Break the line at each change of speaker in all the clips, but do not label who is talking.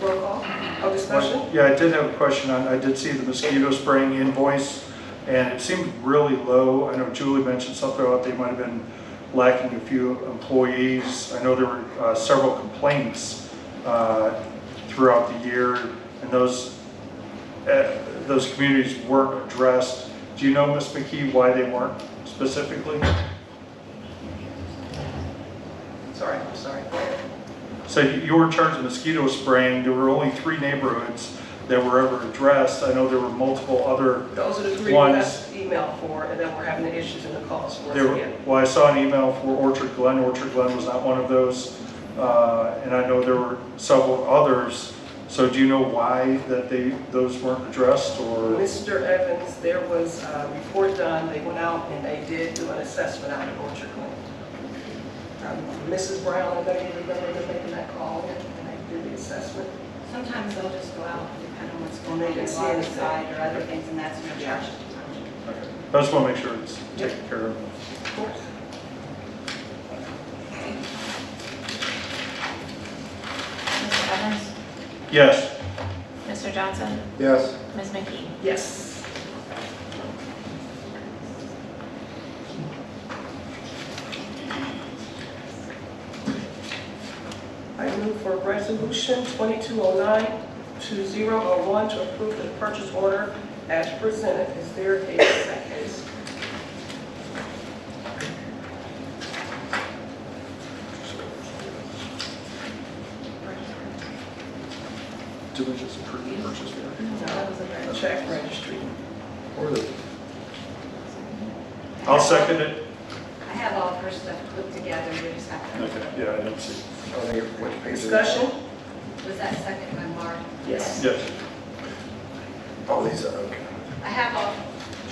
Roll call. Oh, discussion?
Yeah, I did have a question on, I did see the mosquito spraying invoice, and it seemed really low. I know Julie mentioned something about they might have been lacking a few employees. I know there were uh, several complaints uh, throughout the year, and those, uh, those communities weren't addressed. Do you know, Ms. McKee, why they weren't specifically?
Sorry, I'm sorry.
So you you were in charge of mosquito spraying. There were only three neighborhoods that were ever addressed. I know there were multiple other
Those are the three
One.
we got email for, and then we're having the issues in the calls once
There, were-
again.
well, I saw an email for Orchard Glen, Orchard Glen was not one of those, uh, and I know there were several others. So do you know why that they, those weren't addressed, or?
Mr. Evans, there was a report done, they went out and they did do an assessment out of Orchard Glen. Um, Mrs. Brown, I don't even remember them making that call, in, and they did the assessment.
Sometimes they'll just go out and depend on what's going
They
on
can
in
see
the
anything.
side or other things, and that's no
Yeah.
charge to the township.
Okay. I just want to make sure it's taken care of.
Of course.
Mr. Evans?
Yes,
Mr. Johnson?
Yes.
Ms. McKee?
Yes. I move for resolution 2209-2001 to approve the purchase order as presented. Is there a second?
Do we just approve the purchase order?
No. Check registry.
Or the,
I'll second it.
I have all of her stuff put together, we just have to,
Yeah, I didn't see.
I don't think which page? is it?
Discussion?
was that second by Mark?
Yes.
Yes,
Oh, these are, okay.
I have all.
I-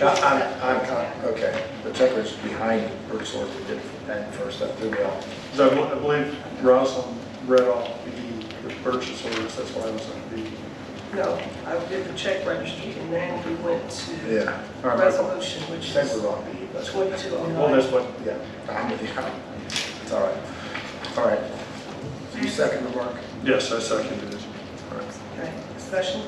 I'm, I'm, con- okay. The checklist behind the purchase order, we did that first, that threw me off.
'Cause I bel- I believe Rosalind read off the, the purchase orders, that's why I was on the.
No, I did the check registry and then we went to
Yeah.
All right,
resolution, which
Same
is
with Rock Beach, that's,
Well,
2209.
that's what,
yeah. I'm with you. It's all right. All right. You second the mark?
yes, I seconded it.
All right.
Okay, discussion?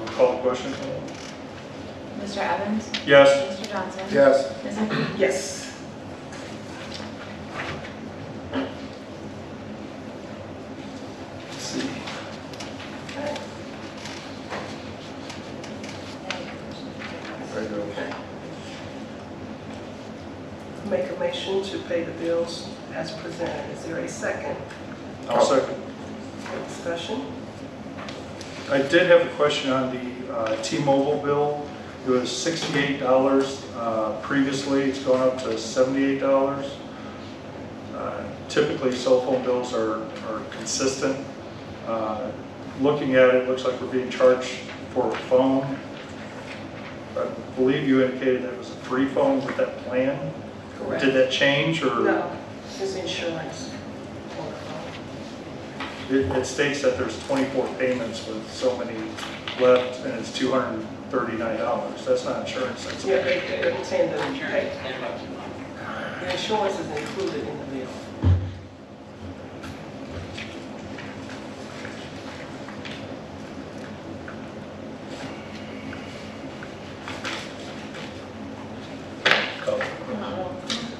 I'll Call the question?
Mr. Evans?
Yes,
Mr. Johnson?
Yes.
Ms. McKee?
Yes. Okay.
Very good, okay.
Make a motion to pay the bills as presented. Is there a second
I'll second.
discussion?
I did have a question on the uh, T-Mobile bill. It was $68 uh, previously, it's gone up to $78. Uh, Typically, cell phone bills are are consistent. Uh, Looking at it, it looks like we're being charged for a phone. I believe you indicated that it was a free phone with that plan. Did that change, or?
No, it's insurance.
It it states that there's 24 payments with so many left, and it's $239. That's not insurance, that's,
Yeah, they, they're saying the insurance. The insurance is included in the bill.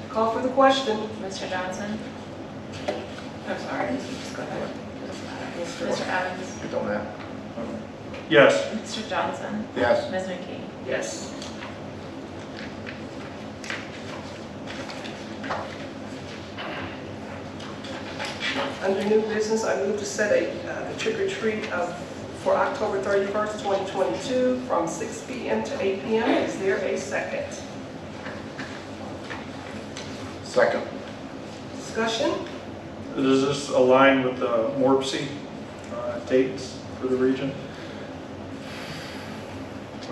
Call for the question.
Mr. Johnson?
I'm sorry. Go ahead.
Mr. Evans?
You don't have?
yes,
Mr. Johnson?
Yes.
Ms. McKee?
Yes. Under new business, I move to set a, uh, the trick or treat of, for October 31st, 2022, from 6 PM to 8 PM. Is there a second?
Second.
Discussion?
does this align with the Morpsey uh, dates for the region?
It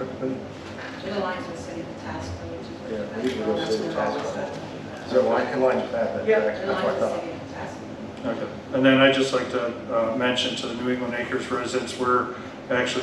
aligns with city task, which is.
Yeah, we usually go city task.
Discussion.
So line, in line with that,
Yeah.
that's
It
what I
aligns with
thought.
city task.
Okay. And then I'd just like to uh, mention to the New England Acres residents, we're actually